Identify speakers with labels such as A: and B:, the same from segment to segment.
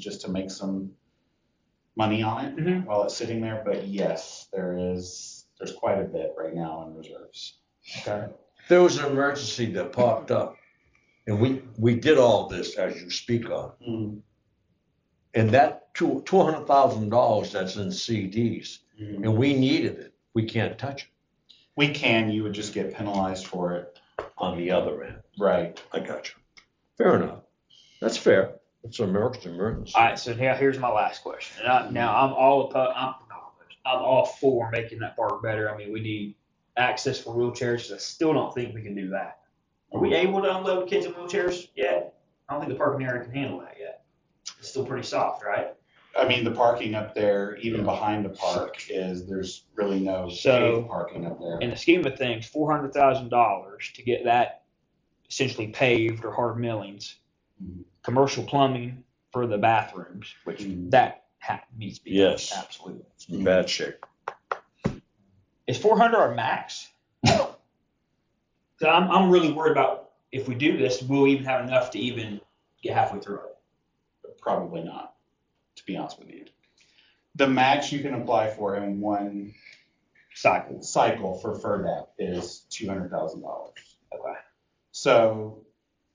A: just to make some money on it
B: Mhm.
A: while it's sitting there. But yes, there is there's quite a bit right now in reserves.
C: Okay. There was an emergency that popped up, and we, we did all this as you speak on. And that two, two hundred thousand dollars that's in CDs,
A: Mhm.
C: and we needed it, we can't touch it
A: We can. You would just get penalized for it.
C: on the other end.
A: Right.
C: I got you. Fair enough. That's fair. It's an emergency, emergency.
B: All right, so now here's my last question. And I, now I'm all oppo- I'm I'm all for making that park better. I mean, we need access for wheelchairs. 'cause I still don't think we can do that. Are we able to unload kids in wheelchairs yet? I don't think the parking area can handle that yet. It's still pretty soft, right?
A: I mean, the parking up there, even behind the park, is there's really no
B: So-
A: safe parking up there.
B: In the scheme of things, four hundred thousand dollars to get that essentially paved or hard millings, Mm-hmm.
A: Mhm.
B: commercial plumbing for the bathrooms, which
A: Mhm.
B: that ha- needs to be done,
C: Yes.
B: absolutely.
C: It's in bad shape.
B: Is 400 our max? so I'm, I'm really worried about if we do this, we'll even have enough to even get halfway through it.
A: Probably not, to be honest with you. The max you can apply for in one
B: Cycles.
A: cycle for FERDAP is two hundred thousand dollars.
B: Okay.
A: So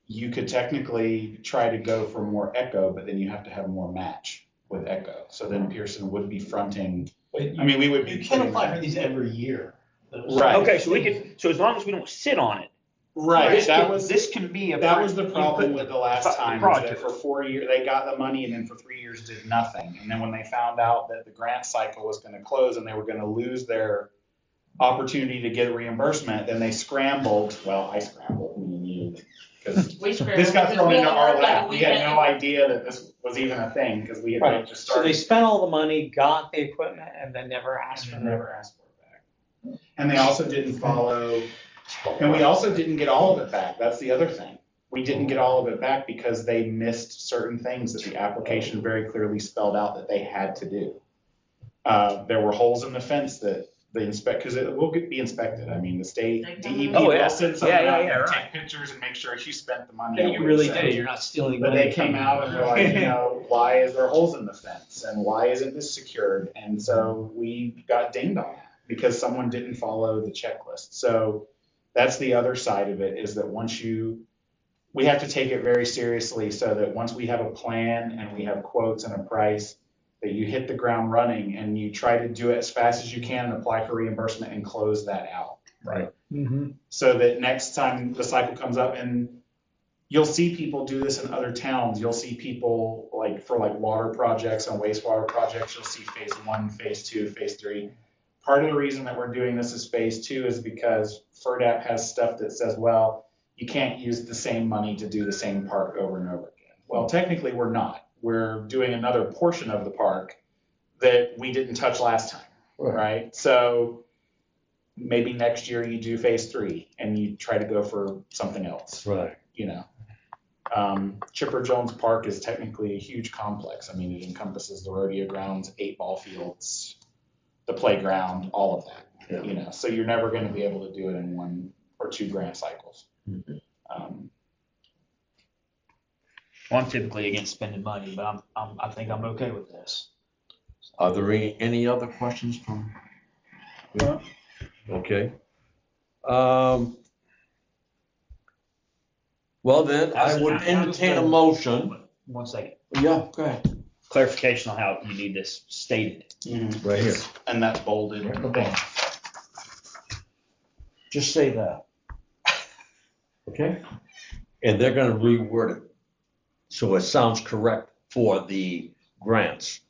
A: you could technically try to go for more echo, but then you have to have more match with echo. So then Pearson would be fronting,
D: But
A: I mean, we would
D: You
A: be.
D: can apply for these every year.
A: Right.
B: Okay, so we can. So as long as we don't sit on it,
A: Right,
B: This
A: that
B: can,
A: was,
B: this can be a.
A: that was the
B: you
A: problem
B: put
A: with
B: the-
A: the last
B: fu-
A: time, was that
B: project.
A: for four years, they got the money and then for three years did nothing. And then when they found out that the grant cycle was gonna close and they were gonna lose their opportunity to get reimbursement, then they scrambled, well, I scrambled, me and you, because
E: We scrambled.
A: This got
E: because
A: thrown
E: we
A: into
E: only
A: our
E: worked like a
A: lap. We had
E: weekend.
A: no idea that this was even a thing because we had
D: Right.
A: just
D: So
A: started.
D: they spent all the money, got the equipment, and then never asked for
A: and
D: it.
A: never asked for it back. And they also didn't follow, and we also didn't get all of it back. That's the other thing. We didn't get all of it back because they missed certain things that the application very clearly spelled out that they had to do. Uh, there were holes in the fence that the inspect, because it will get- be inspected. I mean, the state E
E: They come
A: DEP
E: in.
B: Oh, yeah.
A: will send someone
B: Yeah, yeah,
A: out
B: yeah,
A: and
B: right.
A: take pictures and make sure you spent the money.
D: That
A: that
D: you
A: we
D: really
A: sent.
D: did, you're not stealing
A: But
D: money
A: they came
D: from
A: out
D: them.
A: and were like, you know, why is there holes in the fence and why isn't this secured? And so we got dinged on that because someone didn't follow the checklist. So that's the other side of it is that once you, we have to take it very seriously so that once we have a plan and we have quotes and a price, that you hit the ground running and you try to do it as fast as you can and apply for reimbursement and close that out. Right
B: Mm-hmm.
A: so that next time the cycle comes up and you'll see people do this in other towns you'll see people like for like water projects and wastewater projects you'll see phase one phase two phase three part of the reason that we're doing this as phase two is because FERDAP has stuff that says well you can't use the same money to do the same park over and over again well technically we're not we're doing another portion of the park that we didn't touch last time
C: Right.
A: right so maybe next year you do phase three and you try to go for something else,
C: Right.
A: you know. Um, Chipper Jones Park is technically a huge complex. I mean, it encompasses the rodeo grounds, eight ball fields, the playground, all of
C: Yeah.
A: that, you know. So you're never going to be able to do it in one or two grant cycles.
C: Mhm.
A: Um,
B: Well, I'm typically against spending money, but I'm, I'm I think I'm okay with this.
C: Are there any, any other questions from? Okay. Um, well then, I would entertain a motion.
B: One second.
C: Yeah, go ahead.
B: Clarification on how you need this stated.
C: Right here.
A: And that's bolded.
C: Just say that. Okay? And they're gonna reword it, so it sounds correct for the grants.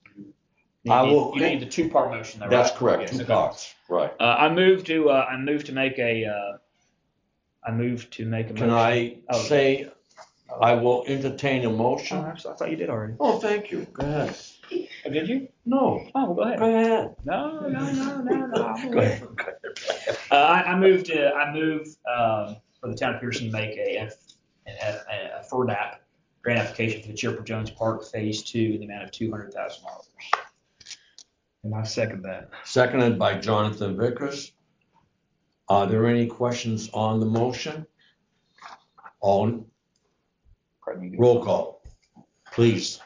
B: You
C: I
B: need-
C: will-
B: You need the two part motion though, right?
C: That's correct,
B: Yes,
C: two
B: okay.
C: parts, right.
B: Uh, I move to, uh, I move to make a, uh, I move to make a motion.
C: Can I
B: Oh.
C: say, I will entertain a
B: Oh,
C: motion?
B: I'm so- I thought you did already.
C: Oh, thank you, go ahead.
B: Oh, did you?
C: No,
B: Oh, go ahead.
C: go ahead.
B: No, Oh, no, no, no, no.
C: Go ahead.
B: Uh, I, I moved to, I move, um, for the town of Pearson to make a, F- an F- a, a FERDAP grant application for the Chipper Jones Park Phase Two in the amount of two hundred thousand dollars. And I second that.
C: Seconded by Jonathan Vickers. Are there any questions on the motion? On, roll call, please.